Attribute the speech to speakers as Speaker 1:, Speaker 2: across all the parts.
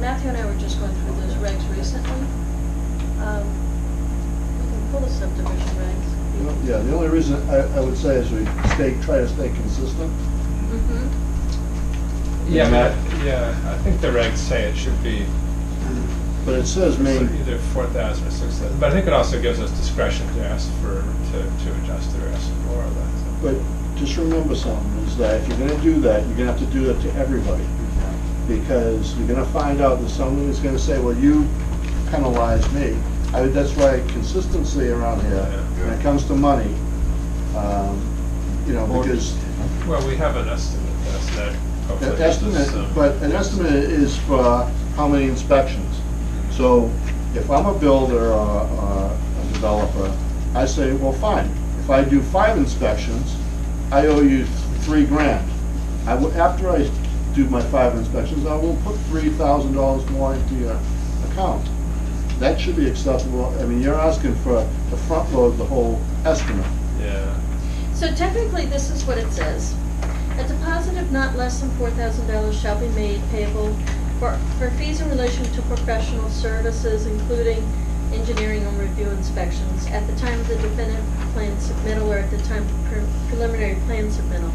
Speaker 1: Matthew and I were just going through those regs recently. Um, We can pull the subdivision regs.
Speaker 2: Yeah, the only reason I, I would say is we stay, try to stay consistent.
Speaker 1: Mhm.
Speaker 3: Yeah,
Speaker 2: Matt?
Speaker 3: but- yeah, I think the regs say it should be
Speaker 2: But it says main,
Speaker 3: either four thousand or six thousand, but I think it also gives us discretion to ask for, to, to adjust the rest or that.
Speaker 2: but just remember something, is that if you're gonna do that, you're gonna have to do that to everybody. Because you're gonna find out that someone is gonna say, well, you penalized me. I, that's why consistency around here, when it comes to money, um, you know, because
Speaker 3: Well, we have an estimate, that's that. hopefully
Speaker 2: An
Speaker 3: gives us
Speaker 2: estimate,
Speaker 3: some-
Speaker 2: but an estimate is for how many inspections. So if I'm a builder or or a developer, I say, well, fine, if I do five inspections, I owe you three grand. I will, after I do my five inspections, I will put three thousand dollars more into your account. That should be acceptable. I mean, you're asking for, to front load the whole estimate.
Speaker 3: Yeah,
Speaker 1: So technically, this is what it says. A deposit of not less than four thousand dollars shall be made payable for, for fees in relation to professional services, including engineering and review inspections, at the time of the definitive plan submittal or at the time of pre- preliminary plan submittal.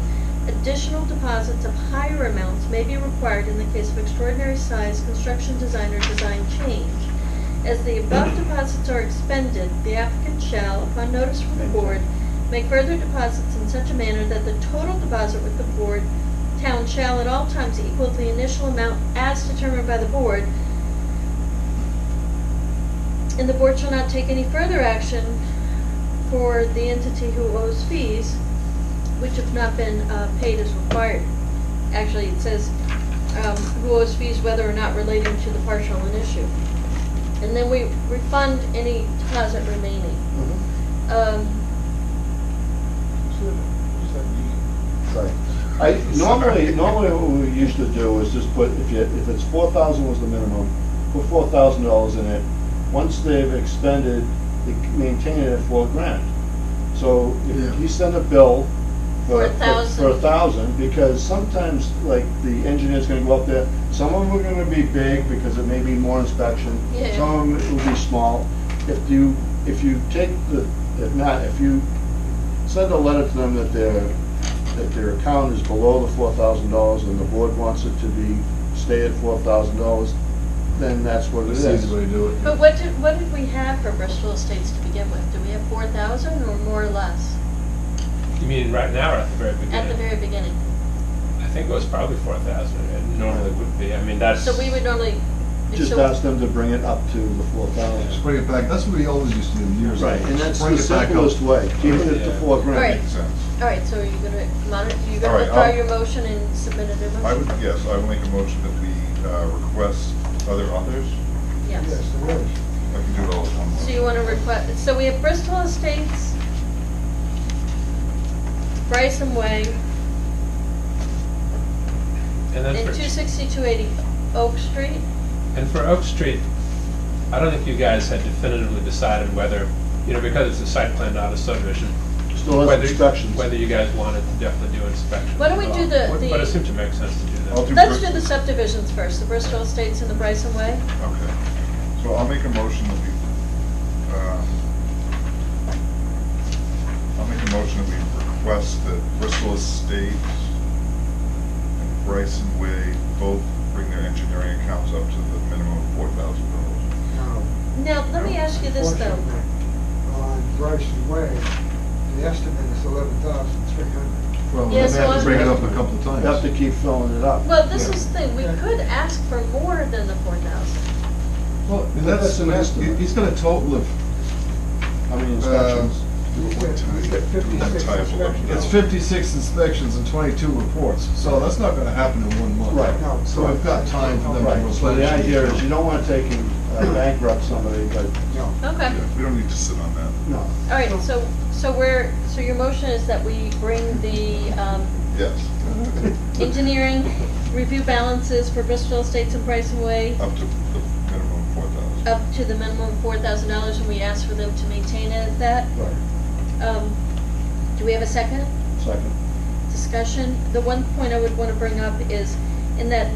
Speaker 1: Additional deposits of higher amounts may be required in the case of extraordinary size, construction design, or design change. As the above deposits are expended, the applicant shall, upon notice from the board, make further deposits in such a manner that the total deposit with the board, town shall at all times equal the initial amount as determined by the board. And the board shall not take any further action for the entity who owes fees which have not been, uh, paid as required. Actually, it says, um, who owes fees whether or not relating to the partial in issue. And then we refund any deposit remaining. Um,
Speaker 2: Right. I, normally, normally what we used to do is just put, if you, if it's four thousand was the minimum, put four thousand dollars in it. Once they've expended, they maintain it at four grand. So
Speaker 4: Yeah.
Speaker 2: if you send a bill
Speaker 1: For
Speaker 2: for,
Speaker 1: a
Speaker 2: for-
Speaker 1: thousand.
Speaker 2: for a thousand, because sometimes, like, the engineer's gonna go up there, some of them are gonna be big because it may be more inspection.
Speaker 1: Yeah.
Speaker 2: Some of them will be small. If you, if you take the, if not, if you send a letter to them that their, that their account is below the four thousand dollars and the board wants it to be, stay at four thousand dollys, then that's what it
Speaker 4: That's
Speaker 2: is.
Speaker 4: the easy way to do it.
Speaker 1: But what did, what did we have for Bristol Estates to begin with? Do we have four thousand or more or less
Speaker 3: you mean right now or at the very beginning?
Speaker 1: at the very beginning?
Speaker 3: I think it was probably four thousand, it normally would be, I mean, that's.
Speaker 1: So we would normally.
Speaker 2: Just
Speaker 1: so-
Speaker 2: ask them to bring it up to the four thousand.
Speaker 4: Just bring it back, that's what we always used to do years ago.
Speaker 2: Right, and that's
Speaker 4: Bring
Speaker 2: the
Speaker 4: it back up.
Speaker 2: simplest way, keeping it to four grand.
Speaker 1: Right.
Speaker 5: Makes sense.
Speaker 1: All right, so are you gonna monitor, you're
Speaker 5: All
Speaker 1: gonna
Speaker 5: right,
Speaker 1: withdraw
Speaker 5: I'll-
Speaker 1: your motion and submit a new motion?
Speaker 5: I would, yes, I would make a motion that we uh, request other authors.
Speaker 1: Yes.
Speaker 4: there is.
Speaker 5: I can do it all at one
Speaker 1: So you
Speaker 5: motion.
Speaker 1: wanna request, so we have Bristol Estates, Bryson Way,
Speaker 3: And then
Speaker 1: and
Speaker 3: for-
Speaker 1: two sixty-two eighty Oak Street.
Speaker 3: And for Oak Street, I don't think you guys had definitively decided whether, you know, because it's a site plan, not a subdivision.
Speaker 2: Still has
Speaker 3: whether-
Speaker 2: inspections.
Speaker 3: Whether you guys wanted to definitely do inspections.
Speaker 1: Why don't we
Speaker 3: at
Speaker 1: do
Speaker 3: all.
Speaker 1: the-
Speaker 3: But-
Speaker 1: the-
Speaker 3: But it seemed to make sense to do that.
Speaker 5: I'll do-
Speaker 1: Let's do
Speaker 5: Bristol.
Speaker 1: the subdivisions first, the Bristol Estates and the Bryson Way.
Speaker 5: Okay. So I'll make a motion that we, uh, I'll make a motion that we request that Bristol Estate and Bryson Way both bring their engineering accounts up to the minimum of four thousand dollars.
Speaker 1: Now, let me ask you this though.
Speaker 6: Unfortunately, On Bryson Way, the estimate is eleven thousand three hundred.
Speaker 4: Well, we
Speaker 1: Yeah,
Speaker 4: have
Speaker 1: so
Speaker 4: to
Speaker 1: I'm-
Speaker 4: bring it up a couple of
Speaker 2: You have to
Speaker 4: times.
Speaker 2: keep filling it up.
Speaker 1: Well, this
Speaker 4: Yeah.
Speaker 1: is the thing, we
Speaker 6: Yeah.
Speaker 1: could ask for more than the four thousand.
Speaker 4: Well,
Speaker 2: that's an estimate.
Speaker 4: He's got a total of,
Speaker 2: How many inspections?
Speaker 4: Um,
Speaker 5: What time?
Speaker 6: We get fifty-six
Speaker 5: Time for what?
Speaker 6: inspections.
Speaker 4: it's fifty-six inspections and twenty-two reports, so that's not gonna happen in one month.
Speaker 2: Right.
Speaker 6: No.
Speaker 4: So we've got time for them to
Speaker 2: Right,
Speaker 4: replenish.
Speaker 2: so the idea is you
Speaker 4: it.
Speaker 2: don't wanna take and uh, bankrupt somebody, but,
Speaker 6: No,
Speaker 1: Okay,
Speaker 5: Yeah, We don't need to sit on that.
Speaker 2: no.
Speaker 1: all right, so, so we're, so your motion is that we bring the, um,
Speaker 5: Yes,
Speaker 1: engineering review balances for Bristol Estates and Bryson Way
Speaker 5: up to the minimum four thousand.
Speaker 1: up to the minimum four thousand dollars, and we ask for them to maintain it at that.
Speaker 2: Right.
Speaker 1: Um, do we have a second
Speaker 2: Second.
Speaker 1: discussion? The one point I would wanna bring up is, in that